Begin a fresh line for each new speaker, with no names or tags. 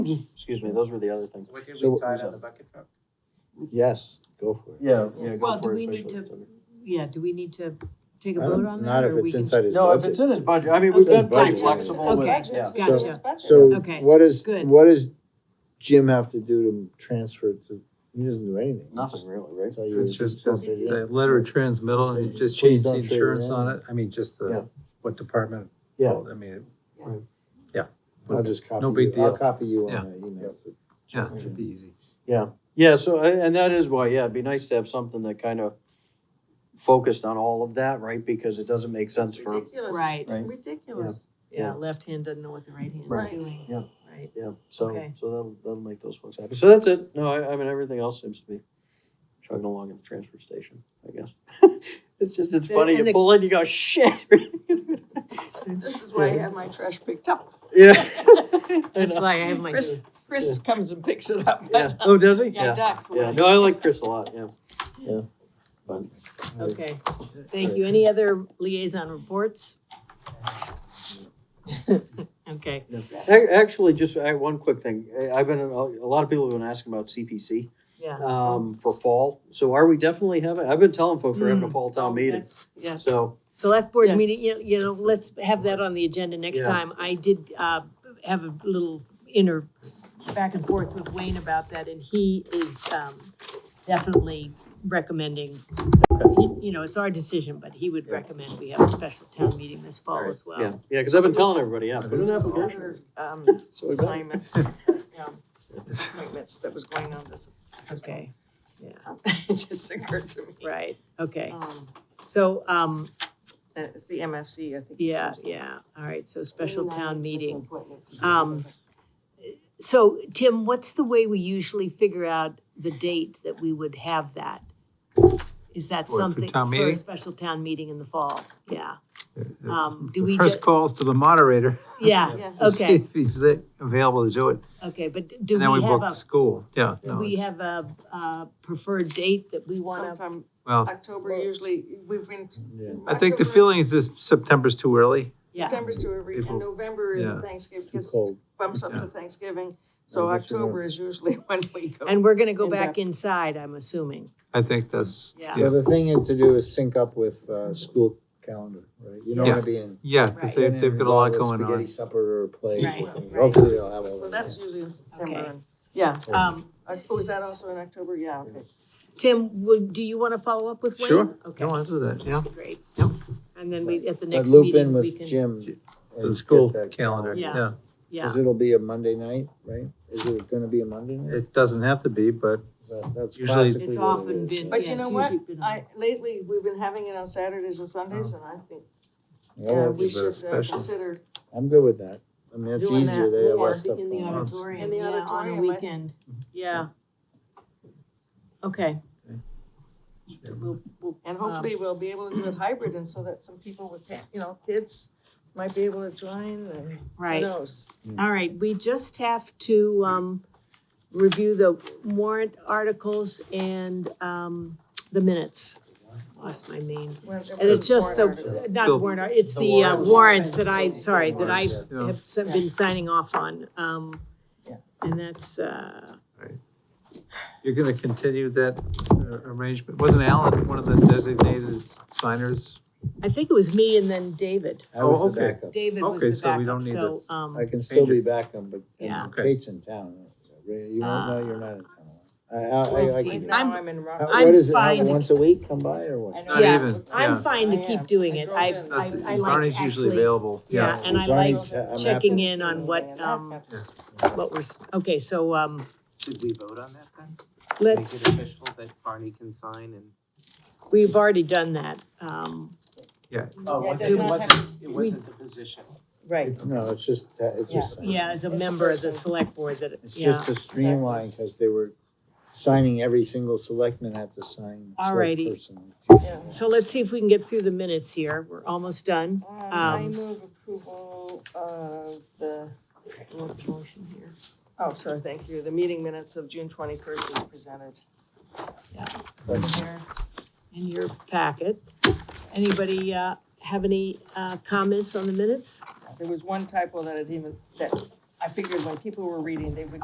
Excuse me, those were the other things.
What did
So
we
what
decide
was
on
that?
the bucket truck?
Yes, go for it.
Yeah, yeah, go
Well, do
for it.
we need
especially-
Yeah, do we need to take a
I don't-
vote on that?
Not if
or we
it's
can-
inside his
No, if it's
budget.
in his budget, I mean,
Okay,
we've been pretty
budget.
flexible with it,
Okay.
yeah.
Gotcha.
So
Okay,
what is,
good.
what does Jim have to do to transfer to, he doesn't do anything.
Nothing really, right?
So you
It's just,
don't
just
say yes.
the letter of transmittal, and you just
Please
change the
don't trade it
insurance
in.
on it, I mean, just
Yeah.
the, what department.
Yeah.
I mean,
I'll just copy
No big
you, I'll
deal.
copy you
Yeah.
on that email.
yeah, it should be easy.
Yeah, so, a- and that is why, yeah, it'd be nice to have something that kind of focused on all of that, right? Because it doesn't make sense for,
Ridiculous.
right,
Right.
Ridiculous.
yeah, left hand doesn't know what the right hand's
Right.
doing.
Yeah.
Right,
yeah, so,
Okay.
so that'll, that'll make those folks happy. So that's it. No, I, I mean, everything else seems to be chugging along at the transfer station, I guess. It's just, it's
The-
funny,
and
you
the-
pull in, you go, shit.
This is why I have my trash picked up.
Yeah.
that's why I have my,
Chris, Chris comes and picks it up.
Yeah, oh, does he?
Yeah, Doc.
Yeah, no, I like Chris a lot, yeah. Yeah. But
okay, thank you. Any other liaison reports? Okay,
Ac- Actually, just uh, one quick thing. I- I've been, a lot of people have been asking about CPC
yeah.
um, for fall. So are we definitely having, I've been telling folks we're having a fall town meeting.
Yes.
So,
Select board
Yes.
meeting, you know, you know, let's have that on the agenda next
Yeah.
time. I did, uh, have a little inner back and forth with Wayne about that, and he is, um, definitely recommending, he- you know, it's our decision, but he would
Yeah.
recommend we have a special town meeting this fall as
yeah,
well.
yeah, because I've been telling everybody, yeah, put an application. in.
Um,
So we've got-
assignments, yeah, appointments that was going on this,
Okay,
it just occurred to me.
right, okay.
Um,
So, um,
that It's the MFC, I think.
yeah, yeah, all right, so special town meeting. Um,
Um,
So, Tim, what's the way we usually figure out the date that we would have that? Is that
For- for
something?
town
for a
meeting?
special town meeting in the fall, yeah.
The-
Um, do we
the First
ju-
calls to the moderator.
Yeah,
Yeah.
to see
Okay.
If he's there, available to do it,
okay, but d- do
and then we
we have
book
a,
the school, yeah,
do
no,
we
it's-
have a, uh preferred date that we want to?
sometime
well,
October usually, we've been.
Yeah.
I think the
October-
feeling is this September's too early,
Yeah,
September's too early,
April.
and November is
Yeah.
Thanksgiving,
Too
gets-
cold.
bumps up
Yeah.
to Thanksgiving, so
I guess you're
October is usually when we go.
and we're going to go
And
back
back.
inside, I'm assuming,
I
Mm.
think that's,
yeah.
So the thing to do is sync up with, uh, school calendar, right? You don't
Yeah.
wanna be in.
yeah, because
Right.
they've,
in
they've got a lot
with
going on.
Spaghetti supper or plays,
Right,
or things.
right.
hopefully they'll have all
Well,
that.
that's usually in September,
Okay.
and, yeah,
Um,
Uh, oh, is that also in October? Yeah, okay.
Tim, would, do you want to follow up with Wayne?
Sure.
Okay,
No, I'll do that, yeah,
great.
Yep.
And then we, at the
But
next
loop in
meeting, we
with
can.
Jim. and
the
get
school
that
calendar,
Yeah.
yeah.
Yeah,
Cause it'll be a Monday night, right? Is it gonna be a Monday night?
It doesn't have to be, but
That- That's
Usually-
classically.
It's
what it
often
is,
been-
right?
But
Yeah,
you know
it's
what?
usually been on-
I, lately, we've been having it on Saturdays and Sundays, and I think,
Yeah,
yeah,
well,
we
give it a
should uh,
special.
consider.
I'm good with that. I mean, it's
Doing
easier,
that
they have
more
less stuff
in the
going on.
auditorium,
In the
yeah, on a
auditorium, I-
weekend, yeah. Okay. We'll- we'll-
And hopefully,
Um,
we'll be able to do it hybrid, and so that some people with, pa- you know, kids might be able to join, and who
Right,
knows?
all right, we just have to, um, review the warrant articles and, um, the minutes. Lost my name. And it's just the,
The-
not warrant, ar- it's
the
the uh,
warrants.
warrants that I, sorry, that I
Warrants,
yeah.
have s- been signing off on, um,
Yeah.
and that's, uh,
You're gonna continue that uh, arrangement? Wasn't Alan one of the designated signers?
I think it was me and then David.
I was
Oh,
the
okay.
backup.
David was
Okay,
the
so we
backup,
don't need
so, um.
I can still
Change it.
be backup, but
Yeah.
and
Okay.
Kate's in town. Ray, You won't know you're not in town. I, I, I- I can do it.
I'm-
Now I'm in
Uh,
Rockland.
I'm
What is it, how-
fine.
once a week, come by or what?
Not
Yeah.
even,
I'm
yeah.
fine to
I
keep
am.
doing
I
it.
drove
I,
in.
I, I like
Barney's usually
actually,
available,
yeah,
yeah.
and I
Barney's-
like
I'm happy.
checking in on what, um, what we're, s- okay, so, um,
Should we vote on that then?
let's,
Make it official that Barney can sign and.
we've already done that. Um,
Oh,
Yeah,
was
it
it
does
it
not
wasn't, it wasn't the position.
Right.
No, it's just, that- it's just.
yeah, as a
It's a
member of the
person.
select board that,
It's
yeah,
just to streamline, because they were signing, every single selectman had to sign. select
Alrighty.
person.
Yeah.
so let's see if we can get through the minutes here. We're almost done.
Um, I
Um,
move approval of the, what motion here? Oh, sorry, thank you. The meeting minutes of June twenty-first is presented.
in your packet. Anybody, uh, have any, uh, comments on the minutes?
There was one typo that it even, that I figured when people were reading, they would